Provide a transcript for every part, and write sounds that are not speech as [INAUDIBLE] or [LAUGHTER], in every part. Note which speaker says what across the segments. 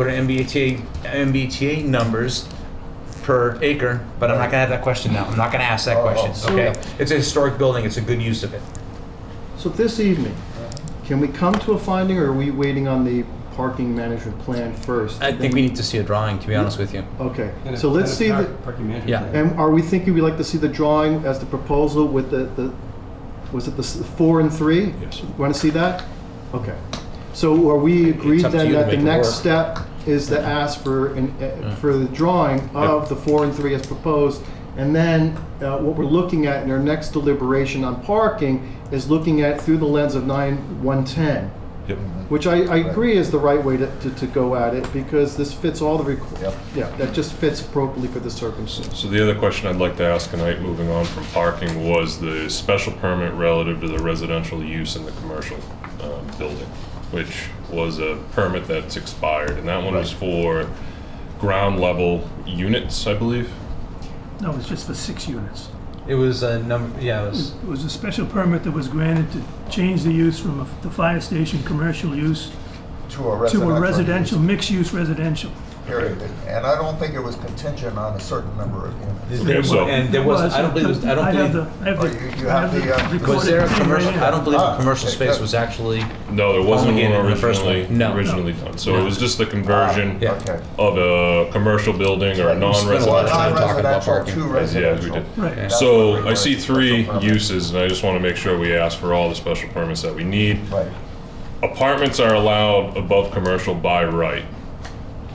Speaker 1: go to MBTA, MBTA numbers per acre, but I'm not gonna have that question now. I'm not gonna ask that
Speaker 2: Oh,
Speaker 1: question,
Speaker 2: so-
Speaker 1: okay? It's a historic building, it's a good use of it.
Speaker 3: So this evening, can we come to a finding, or are we waiting on the parking management plan first?
Speaker 1: I think we need to see a drawing, to be honest with you.
Speaker 3: Okay,
Speaker 2: And a-
Speaker 3: so let's
Speaker 2: and a
Speaker 3: see
Speaker 2: par-
Speaker 3: the,
Speaker 2: Parking management.
Speaker 1: Yeah.
Speaker 2: plan.
Speaker 3: and are we thinking we'd like to see the drawing as the proposal with the, the, was it the s- four and three?
Speaker 1: Yes.
Speaker 3: Want to see that? Okay. So are we agreed
Speaker 1: up to
Speaker 3: then
Speaker 1: you to
Speaker 3: that the
Speaker 1: make it
Speaker 3: next
Speaker 1: work.
Speaker 3: step is to ask for, an- uh, for the drawing of the four and three as proposed? And then uh, what we're looking at in our next deliberation on parking is looking at through the lens of nine, one, ten. Which I, I agree is the right way to, to, to go at it, because this fits all the
Speaker 2: Yep.
Speaker 3: requ- yeah, that just fits appropriately for the circumstance.
Speaker 4: So the other question I'd like to ask tonight, moving on from parking, was the special permit relative to the residential use in the commercial um, building, which was a permit that's expired, and that one was for ground level units, I believe.
Speaker 5: No, it's just for six units.
Speaker 1: It was a number, yeah, it was,
Speaker 5: It was a special permit that was granted to change the use from a- the fire station commercial use
Speaker 2: To a
Speaker 5: to
Speaker 2: residential.
Speaker 5: a residential, mixed-use residential.
Speaker 2: Period. And I don't think it was contingent on a certain number of units.
Speaker 1: there
Speaker 4: so-
Speaker 1: were- and there was, I don't believe, it was- I
Speaker 5: I
Speaker 1: don't
Speaker 5: have
Speaker 1: believe,
Speaker 5: the- I have
Speaker 2: Oh,
Speaker 5: the-
Speaker 2: you- you
Speaker 5: I
Speaker 2: have the, uh,
Speaker 5: recorded
Speaker 1: was there a
Speaker 5: thing right
Speaker 1: commercial,
Speaker 5: here.
Speaker 1: I don't believe a
Speaker 2: Ah,
Speaker 1: commercial
Speaker 2: okay,
Speaker 1: space
Speaker 2: good.
Speaker 1: was actually,
Speaker 4: No, there wasn't
Speaker 1: Only in
Speaker 4: one
Speaker 1: the first
Speaker 4: originally,
Speaker 1: one. No.
Speaker 4: originally done. So it was just the
Speaker 2: Ah,
Speaker 4: conversion
Speaker 1: Yeah.
Speaker 2: Okay.
Speaker 4: of a commercial building or a
Speaker 1: We spent a
Speaker 4: non-residential.
Speaker 1: lot of time talking about
Speaker 2: Non-residential
Speaker 1: parking.
Speaker 2: to
Speaker 4: Yeah, we
Speaker 2: residential.
Speaker 4: did.
Speaker 5: Right,
Speaker 4: So I see three uses, and I just want to make sure we ask for all the special permits that we need.
Speaker 2: Right.
Speaker 4: Apartments are allowed above commercial by right,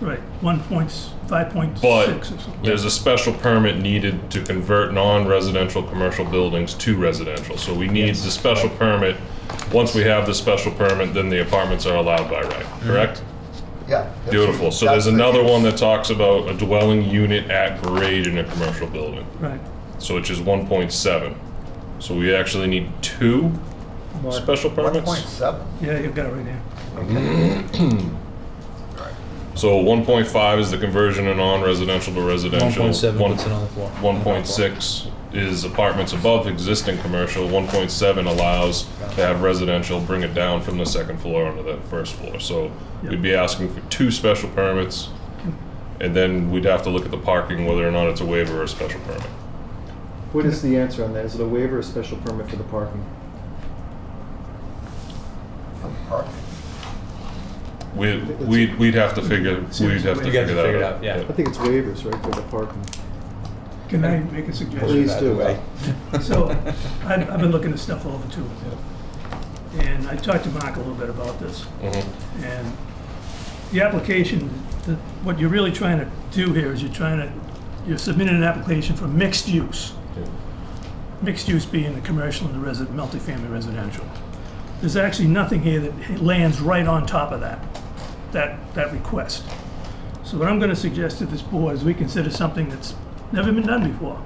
Speaker 5: right, one point, five point
Speaker 4: but
Speaker 5: six or something.
Speaker 4: there's a special permit needed to convert non-residential commercial buildings to residential. So we need the special permit. Once we have the special permit, then the apartments are allowed by right,
Speaker 5: Mm-hmm.
Speaker 4: correct?
Speaker 2: Yeah.
Speaker 4: Beautiful. So
Speaker 2: That's
Speaker 4: there's another
Speaker 2: the-
Speaker 4: one that talks about a dwelling unit at grade in a commercial building,
Speaker 5: Right,
Speaker 4: so which is 1.7. So we actually need two special
Speaker 2: One
Speaker 4: permits?
Speaker 2: point seven.
Speaker 5: yeah, you've got it right there.
Speaker 4: So 1.5 is the conversion of non-residential to
Speaker 1: one
Speaker 4: residential.
Speaker 1: point seven,
Speaker 4: One-
Speaker 1: what's it on the floor?
Speaker 4: 1.6 is apartments above existing commercial. 1.7 allows to have residential, bring it down from the second floor onto the first floor. So we'd be asking for two special permits, and then we'd have to look at the parking, whether or not it's a waiver or a special permit.
Speaker 3: What is the answer on that? Is it a waiver or special permit for the parking?
Speaker 4: We- We'd we'd have to figure, we'd have to
Speaker 1: You guys
Speaker 4: figure
Speaker 1: figured
Speaker 4: that
Speaker 1: out,
Speaker 4: out.
Speaker 1: yeah.
Speaker 3: I think it's waivers, right, for the parking?
Speaker 5: Can I make a suggestion?
Speaker 3: Please do.
Speaker 1: Either way.
Speaker 5: So, I've, I've been looking this stuff over too. And I talked to Mark a little bit about this.
Speaker 4: Mhm.
Speaker 5: And the application, the- what you're really trying to do here is you're trying to, you're submitting an application for mixed use. Mixed use being the commercial and the resi, multifamily residential. There's actually nothing here that lands right on top of that, that, that request. So what I'm gonna suggest to this board is we consider something that's never been done before.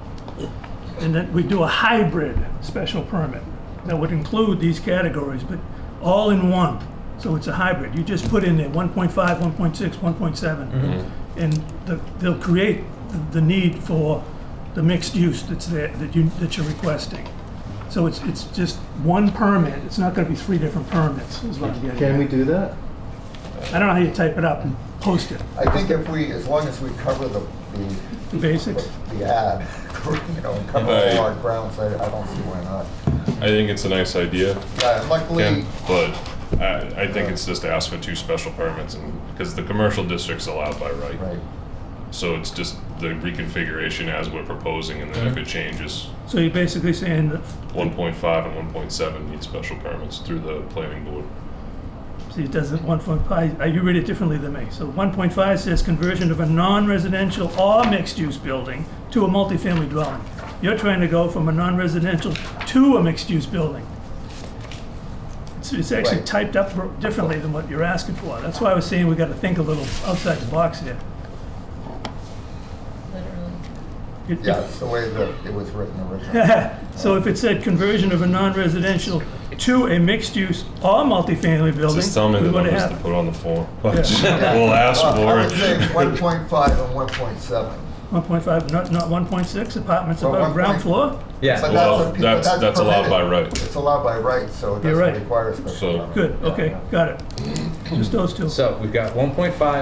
Speaker 5: And that we do a hybrid special permit that would include these categories, but all in one. So it's a hybrid. You just put in there 1.5, 1.6, 1.7. And the- they'll create the- the need for the mixed use that's there, that you, that you're requesting. So it's, it's just one permit. It's not gonna be three different permits, is what I'm getting
Speaker 3: Can we
Speaker 5: at.
Speaker 3: do that?
Speaker 5: I don't know how you type it up and post it,
Speaker 2: I think if we, as long as we cover the,
Speaker 5: the basics.
Speaker 2: the, the ad, [LAUGHS] you know, and cover
Speaker 4: Right.
Speaker 2: all our grounds, I, I don't see why not.
Speaker 4: I think it's a nice idea.
Speaker 2: Yeah, and
Speaker 4: Yeah,
Speaker 2: luckily,
Speaker 4: but I, I think it's just to ask for two special permits and, because the commercial district's allowed by right.
Speaker 2: right,
Speaker 4: So it's just the reconfiguration as we're proposing and then
Speaker 5: Mm-hmm.
Speaker 4: if it changes,
Speaker 5: So you're basically saying that
Speaker 4: one point five and one point seven need special permits through the planning board.
Speaker 5: See, it doesn't, one point five, uh, you read it differently than me. So one point five says conversion of a non-residential or mixed-use building to a multifamily dwelling. You're trying to go from a non-residential to a mixed-use building. It's, it's actually
Speaker 2: Right.
Speaker 5: typed up r- differently than what you're asking for. That's why I was saying we gotta think a little outside the box here. It- if-
Speaker 2: yeah, it's the way that it was written
Speaker 5: [LAUGHS]
Speaker 2: originally.
Speaker 5: So if it said conversion of a non-residential to a mixed-use or multifamily building,
Speaker 4: Just tell me
Speaker 5: we
Speaker 4: the
Speaker 5: would
Speaker 4: numbers
Speaker 5: have.
Speaker 4: to put on the form. [LAUGHS] We'll ask
Speaker 2: Well, I would
Speaker 4: for
Speaker 2: say
Speaker 4: [LAUGHS] it.
Speaker 2: one point five and one point seven.
Speaker 5: 1.5, not, not 1.6 apartments
Speaker 2: Well,
Speaker 5: above
Speaker 2: one
Speaker 5: ground
Speaker 2: point-
Speaker 5: floor?
Speaker 2: But
Speaker 1: Yeah,
Speaker 4: Well,
Speaker 2: that's, a- but
Speaker 4: that's-
Speaker 2: that's
Speaker 4: that's allowed by
Speaker 2: permitted.
Speaker 4: right.
Speaker 2: It's allowed by right, so it
Speaker 5: You're
Speaker 2: doesn't
Speaker 5: right.
Speaker 2: require a special
Speaker 4: So-
Speaker 2: permit.
Speaker 5: Good,
Speaker 2: Yeah.
Speaker 5: okay, got it. Just those two.
Speaker 1: so we've got one point five,